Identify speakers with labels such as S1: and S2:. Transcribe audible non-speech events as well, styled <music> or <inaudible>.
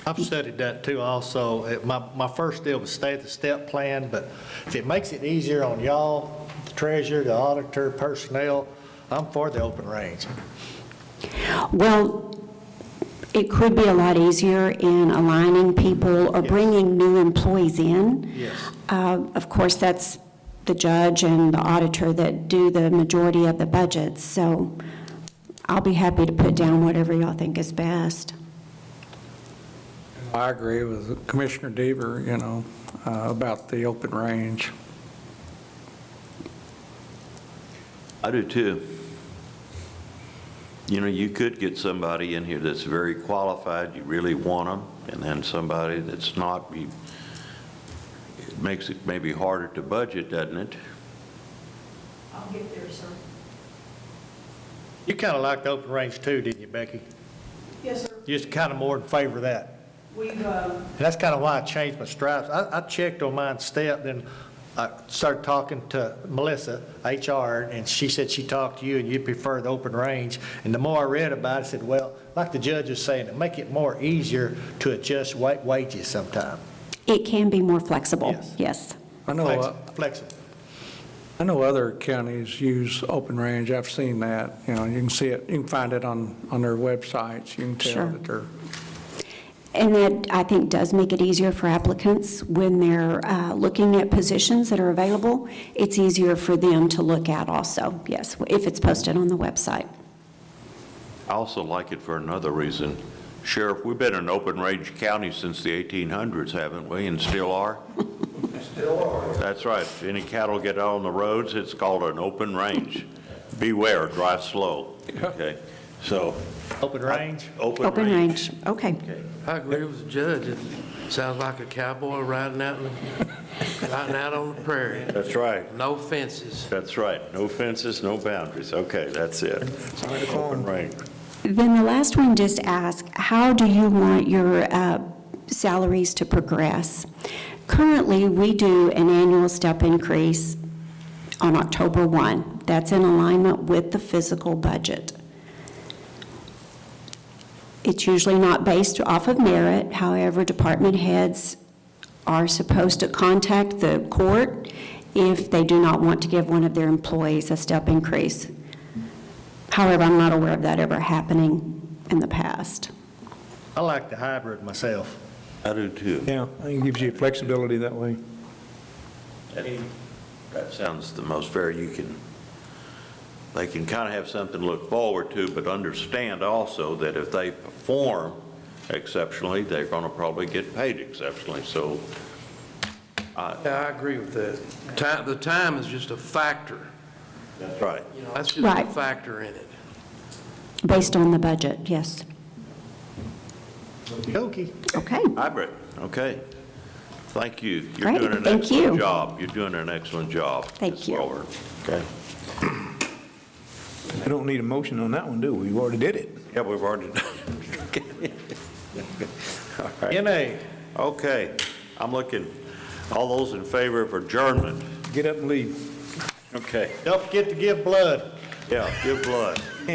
S1: I've studied that too also. It- My, my first deal was stay at the step plan, but if it makes it easier on y'all, the treasurer, the auditor, personnel, I'm for the open range.
S2: Well, it could be a lot easier in aligning people or
S1: Yes.
S2: bringing new employees in.
S1: Yes.
S2: Uh, Of course, that's the judge and the auditor that do the majority of the budgets, so I'll be happy to put down whatever y'all think is best.
S3: I agree with Commissioner Deaver, you know, uh, about the open range.
S4: I do too. You know, you could get somebody in here that's very qualified, you really want them, and then somebody that's not, you, it makes it maybe harder to budget, doesn't it?
S5: I'll get there, sir.
S1: You kind of liked the open range too, didn't you, Becky?
S5: Yes, sir.
S1: You're just kind of more in favor of that.
S5: We've, uh,
S1: And that's kind of why I changed my stripes. I, I checked on mine step, then I started talking to Melissa, HR, and she said she talked to you and you prefer the open range. And the more I read about it, I said, well, like the judge was saying, it make it more easier to adjust wa- wages sometime.
S2: It can be more flexible,
S1: Yes.
S2: yes.
S3: I
S1: Oh,
S3: know, uh,
S1: Flexi- Flexible.
S3: I know other counties use open range, I've seen that, you know, you can see it, you can find it on, on their websites, you can
S2: Sure.
S3: tell that they're,
S2: And that, I think, does make it easier for applicants when they're uh, looking at positions that are available. It's easier for them to look at also, yes, if it's posted on the website.
S4: I also like it for another reason. Sheriff, we've been an open-range county since the 1800s, haven't we, and still are? Still are. That's right. If Any cattle get out on the roads, it's called an open range. Beware, drive slow, okay? So,
S1: Open range.
S4: open
S2: Open
S4: range.
S2: range, okay.
S6: I agree with the judge. It sounds like a cowboy riding out, in- riding out on the prairie.
S4: That's right.
S6: No fences.
S4: That's right. No fences, no boundaries. Okay, that's it. Open range.
S2: Then the last one just asked, how do you want your uh, salaries to progress? Currently, we do an annual step increase on October 1. That's in alignment with the physical budget. It's usually not based off of merit, however, department heads are supposed to contact the court if they do not want to give one of their employees a step increase. However, I'm not aware of that ever happening in the past.
S1: I like the hybrid myself.
S4: I do too.
S7: Yeah, I think it gives you flexibility that way.
S4: That sounds the most fair you can, they can kind of have something to look forward to, but understand also that if they perform exceptionally, they're going to probably get paid exceptionally. So
S6: Yeah, I agree with that. Ti- the time is just a factor.
S4: That's right.
S6: You know, that's just a
S2: Right.
S6: factor in it.
S2: Based on the budget, yes.
S1: Okey-dokey.
S2: Okay,
S4: Hybrid, okay. Thank you.
S2: Great,
S4: You're doing an
S2: thank you.
S4: excellent job. You're doing an excellent job.
S2: Thank
S4: Ms.
S2: you.
S4: Lawler. Okay.
S7: We don't need a motion on that one, do we? We already did it.
S4: Yeah, we've already <laughs> done. All right.
S1: NA.
S4: Okay, I'm looking. All those in favor of adjournment?
S7: Get up and leave.
S4: Okay.
S1: Don't forget to give blood.
S4: Yeah, give blood.